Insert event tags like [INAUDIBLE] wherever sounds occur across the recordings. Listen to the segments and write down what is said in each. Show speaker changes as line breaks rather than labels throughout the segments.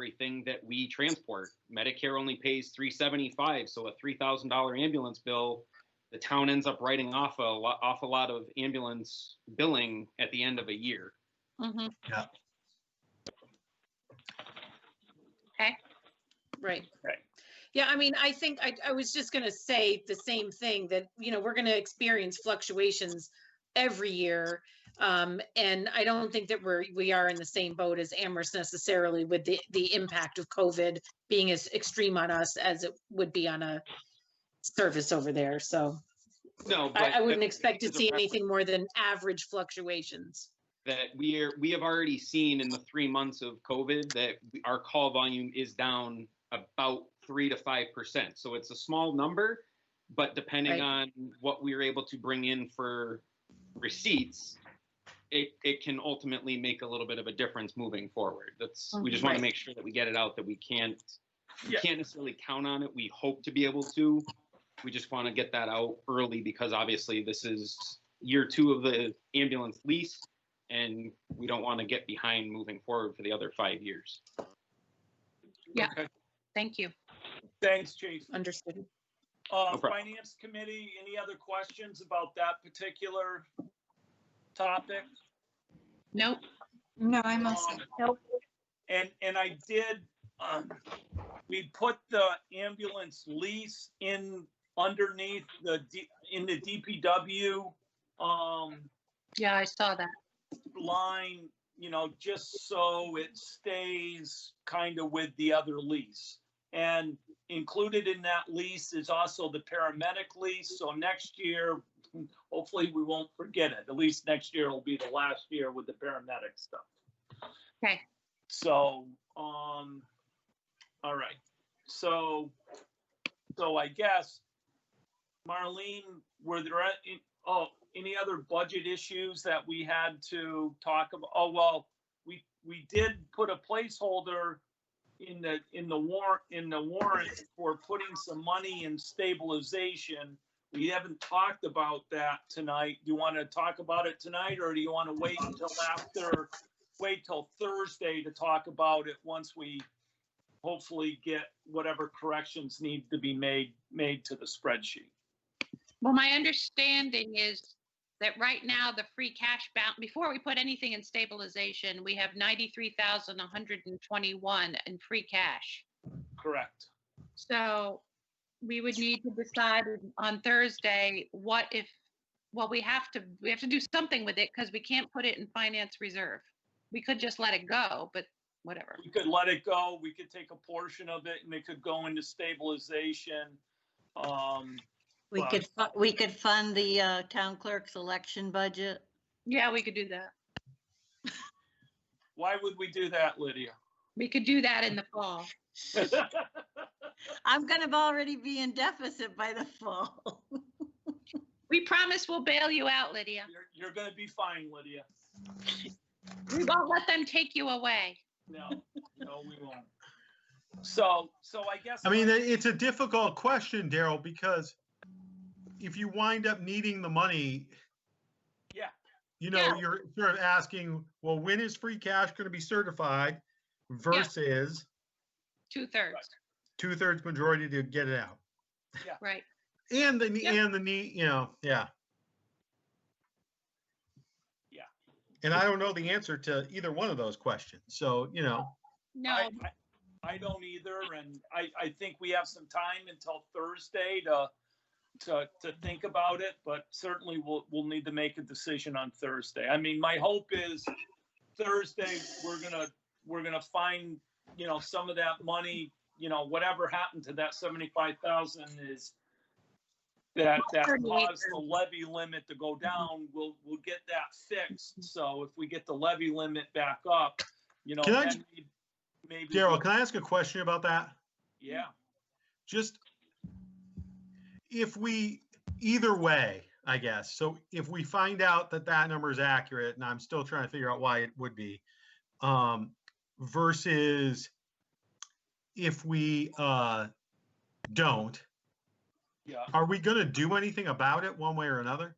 everything that we transport. Medicare only pays 375, so a $3,000 ambulance bill, the town ends up writing off a lot, off a lot of ambulance billing at the end of a year.
Mm-hmm.
Yeah.
Okay, right.
Right.
Yeah, I mean, I think I, I was just gonna say the same thing, that, you know, we're gonna experience fluctuations every year. Um, and I don't think that we're, we are in the same boat as Amherst necessarily with the, the impact of COVID being as extreme on us as it would be on a service over there, so
No, but
I, I wouldn't
that-
expect to
is a
see
reference.
anything more than average fluctuations.
that we are, we have already seen in the three months of COVID that we- our call volume is down about three to five percent. So it's a small number, but depending
Right.
on what we are able to bring in for receipts, it, it can ultimately make a little bit of a difference moving forward. That's, we just want
Right.
to make sure that we get it out that we can't, we
Yeah.
can't necessarily count on it. We hope to be able to. We just want to get that out early because obviously this is year two of the ambulance lease and we don't want to get behind moving forward for the other five years.
Yeah.
Okay.
Thank you.
Thanks, chief.
Understood.
Uh,
No problem.
finance committee, any other questions about that particular topic?
Nope.
No, I'm all
Um,
set.
And, and I did, um, we put the ambulance lease in underneath the, D- in the DPW, um,
Yeah, I saw that.
line, you know, just so it stays kind of with the other lease. And included in that lease is also the paramedic lease, so next year, hopefully we won't forget it. At least next year will be the last year with the paramedic stuff.
Okay.
So, um, all right, so, so I guess, Marlene, were there, any- oh, any other budget issues that we had to talk about? Oh, well, we, we did put a placeholder in the, in the war, in the warrant for putting some money in stabilization. We haven't talked about that tonight. Do you want to talk about it tonight or do you want to wait until after, wait till Thursday to talk about it once we hopefully get whatever corrections need to be made, made to the spreadsheet?
Well, my understanding is that right now, the free cash balance, before we put anything in stabilization, we have 93,121 in free cash.
Correct.
So we would need to decide on Thursday, what if, well, we have to, we have to do something with it because we can't put it in finance reserve. We could just let it go, but whatever.
We could let it go, we could take a portion of it and it could go into stabilization. Um,
We
Wow.
could, fu- we could fund the uh, town clerk's election budget.
Yeah, we could do that.
why would we do that, Lydia? [LAUGHS]
We could do that in the fall.
I'm gonna have already be in deficit by the [LAUGHS] fall.
We promise we'll bail you out, Lydia.
You're, you're gonna be fine, Lydia.
We won't let them take you away.
No, no, we won't. So, so I guess.
I mean, it- it's a difficult question, Daryl, because if you wind up needing the money.
Yeah.
You know,
Yeah.
you're sort of asking, well, when is free cash going to be certified versus
Two-thirds,
two thirds majority to get it out?
right?
And the, ne-
Yeah.
and the need, you know, yeah.
Yeah.
And I don't know the answer to either one of those questions. So, you know,
No,
I- I- I don't either, and I, I think we have some time until Thursday to, to, to think about it, but certainly we'll, we'll need to make a decision on Thursday. I mean, my hope is Thursday, we're gonna, we're gonna find, you know, some of that money, you know, whatever happened to that seventy-five thousand is that, that caused the levy limit to go down, we'll, we'll get that fixed. So if we get the levy limit back up, you know,
Can I
then
ju-
we- maybe.
Daryl, can I ask a question about that?
Yeah,
just if we either way i guess so if we find out that that number is accurate and i'm still trying to figure out why it would be um versus if we uh don't
yeah.
are we going to do anything about it one way or another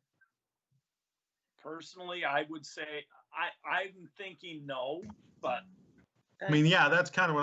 Personally, I would say, I, I'm thinking no, but
i mean yeah that's kind of what